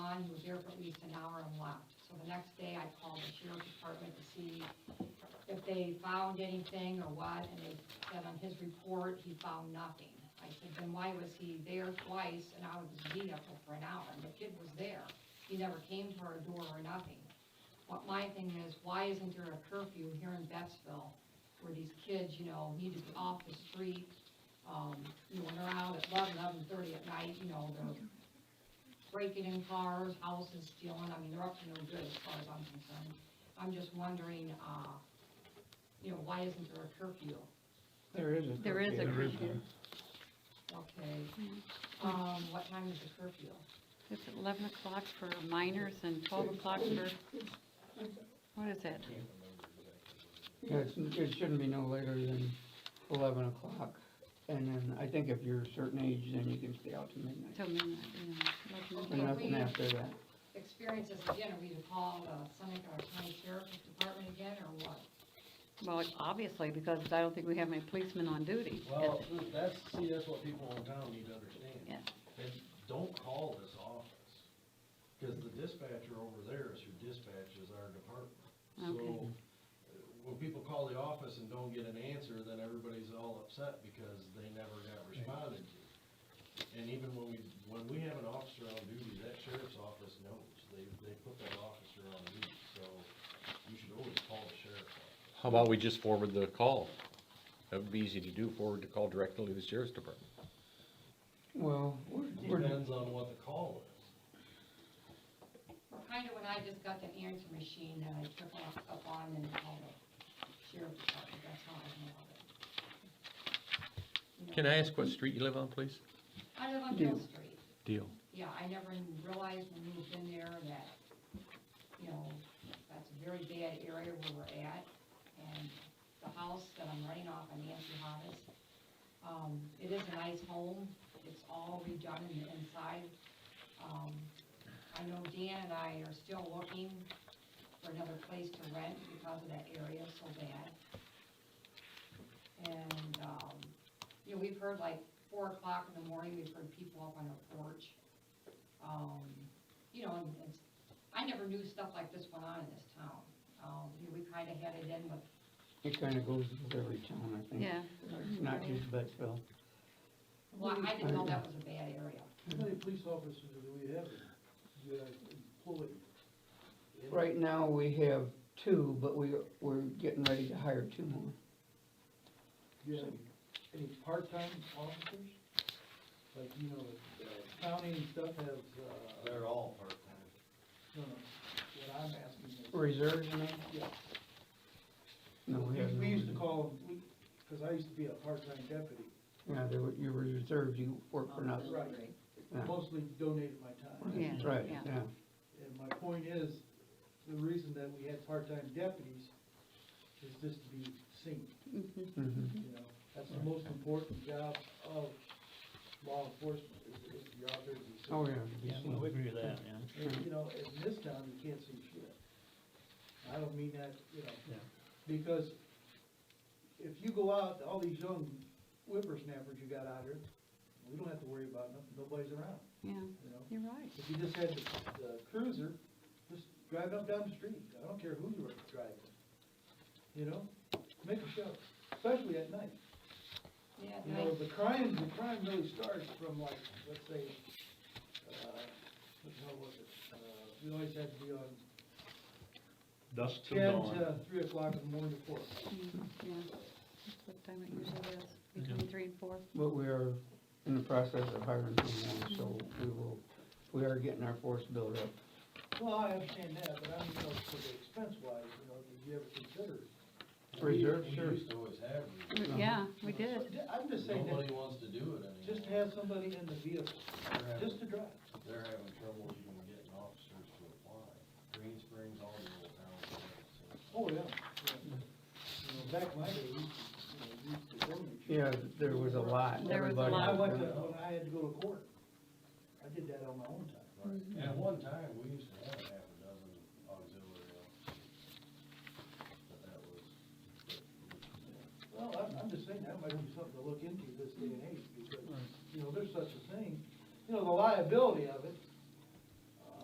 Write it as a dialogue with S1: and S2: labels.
S1: least an hour I'm left. So the next day, I called the sheriff's department to see if they found anything or what, and they said on his report, he found nothing. I said, then why was he there twice and out of his vehicle for an hour? And the kid was there. He never came to our door or nothing. What my thing is, why isn't there a curfew here in Betsville where these kids, you know, need to be off the street? Um, you know, when they're out at eleven, eleven thirty at night, you know, they're breaking in cars, houses stealing, I mean, they're up to no good as far as I'm concerned. I'm just wondering, uh, you know, why isn't there a curfew?
S2: There is a
S3: There is a
S2: curfew.
S3: curfew.
S1: Okay, um, what time is the curfew?
S3: It's at eleven o'clock for minors and twelve o'clock for, what is it?
S2: Yeah, it's, it shouldn't be no later than eleven o'clock, and then I think if you're a certain age, then you can stay out till midnight.
S3: Till midnight, yeah.
S1: Okay.
S2: And
S3: eleven o'clock.
S2: nothing
S1: we-
S2: after that.
S1: Experiences again, are we to call the Seneca County Sheriff's Department again, or what?
S3: Well, obviously, because I don't think we have any policemen on duty.
S4: Well, that's, see, that's what people in town need to understand.
S3: Yeah.
S4: They don't call this office, cause the dispatcher over there is who dispatches our department. So,
S3: Okay.
S4: uh, when people call the office and don't get an answer, then everybody's all upset because they never got responded to. And even when we, when we have an officer on duty, that sheriff's office knows, they, they put that officer on duty, so you should always call the sheriff's office.
S5: How about we just forward the call? That would be easy to do, forward the call directly to the sheriff's department.
S2: Well, we're, we're,
S4: Depends on what the call is.
S1: Well, kind of when I just got the answer machine that I took off, up on and called the Sheriff's Department, that's how I know of it. You know,
S5: Can I ask what street you live on, please?
S1: I live on
S2: Yeah.
S1: Hill Street.
S5: Deal.
S1: Yeah, I never even realized when we moved in there that, you know, that's a very bad area where we're at. And the house that I'm renting off on Nancy Hovis, um, it is a nice home. It's all redone in the inside. Um, I know Dan and I are still looking for another place to rent because of that area so bad. And, um, you know, we've heard like four o'clock in the morning, we've heard people up on our porch um, you know, and it's, I never knew stuff like this went on in this town. Um, you know, we kinda had it in with,
S2: it kinda goes with every town, I think.
S3: Yeah,
S2: Not just Betsville.
S1: well, I didn't know that was a bad area.
S6: How many police officers do we have that employed?
S2: Right now, we have two, but we, we're getting ready to hire two more.
S6: Do you have any part-time officers? Like, you know, the county and stuff has, uh,
S4: They're all part-time.
S6: no, no, what I'm asking is.
S2: Reserves, you mean?
S6: Yeah.
S2: No, we have no.
S6: We used to
S2: reserves.
S6: call, them- we, cause I used to be a part-time deputy,
S2: Yeah, there were, you were reserved, you work for nothing.
S6: Oh, right,
S2: Yeah.
S6: mostly donated my time.
S3: Yeah,
S2: Right,
S3: yeah.
S2: yeah.
S6: And my point is, the reason that we had part-time deputies is just to be seen.
S3: mhm.
S2: mhm.
S6: you know, that's the most important job of law enforcement, is, is the officers.
S2: Oh, yeah. it'd be seen.
S7: agree with that, yeah.
S6: And, you know, in this town, you can't see shit. I don't mean that, you know, because if you go out, all these young whippersnappers you got out here, we don't have to worry about nothing, nobody's around,
S3: Yeah,
S6: you know?
S3: you're right.
S6: If you just had the the cruiser, just drive up down the street, I don't care who you're driving, you know? Make a show, especially at night.
S1: Yeah,
S6: You
S1: nice.
S6: know, the crime, the crime really starts from like, let's say, uh, what the hell was it? Uh, we always had to be on
S7: Dusk till
S6: ten
S7: dawn.
S6: to three o'clock in the morning before.
S3: Mm, Yeah, that's what time it usually is, between three and four.
S2: But we are in the process of hiring someone, so we will, we are getting our force built up.
S6: Well, I understand that, but I'm, you know, for the expense wise, you know, did you ever consider?
S2: Reserve,
S4: We-
S2: sure.
S4: We used to always have
S2: Uh-huh.
S4: reserves.
S3: Yeah, we
S6: you know,
S3: did.
S6: so, I'm just saying that,
S4: Nobody wants to do it anymore.
S6: just have somebody in the vehicle,
S4: They're having,
S6: just to drive.
S4: they're having trouble even getting officers to apply. Green Springs, all the little towns. have it, so.
S6: Oh, yeah. yeah. You know, back in my day, we used to, you know, we used to donate.
S2: Yeah, there was a lot,
S3: There was a
S2: everybody.
S3: lot.
S6: I went to,
S2: was-
S6: when I had to go to court, I did that on my own time.
S4: Right. At one time, we used to have half a dozen auxiliary officers. But that was,
S6: Well, I'm, I'm just saying, that might be something to look into this day and age, because, you know, there's such a thing, you know, the liability of it, uh,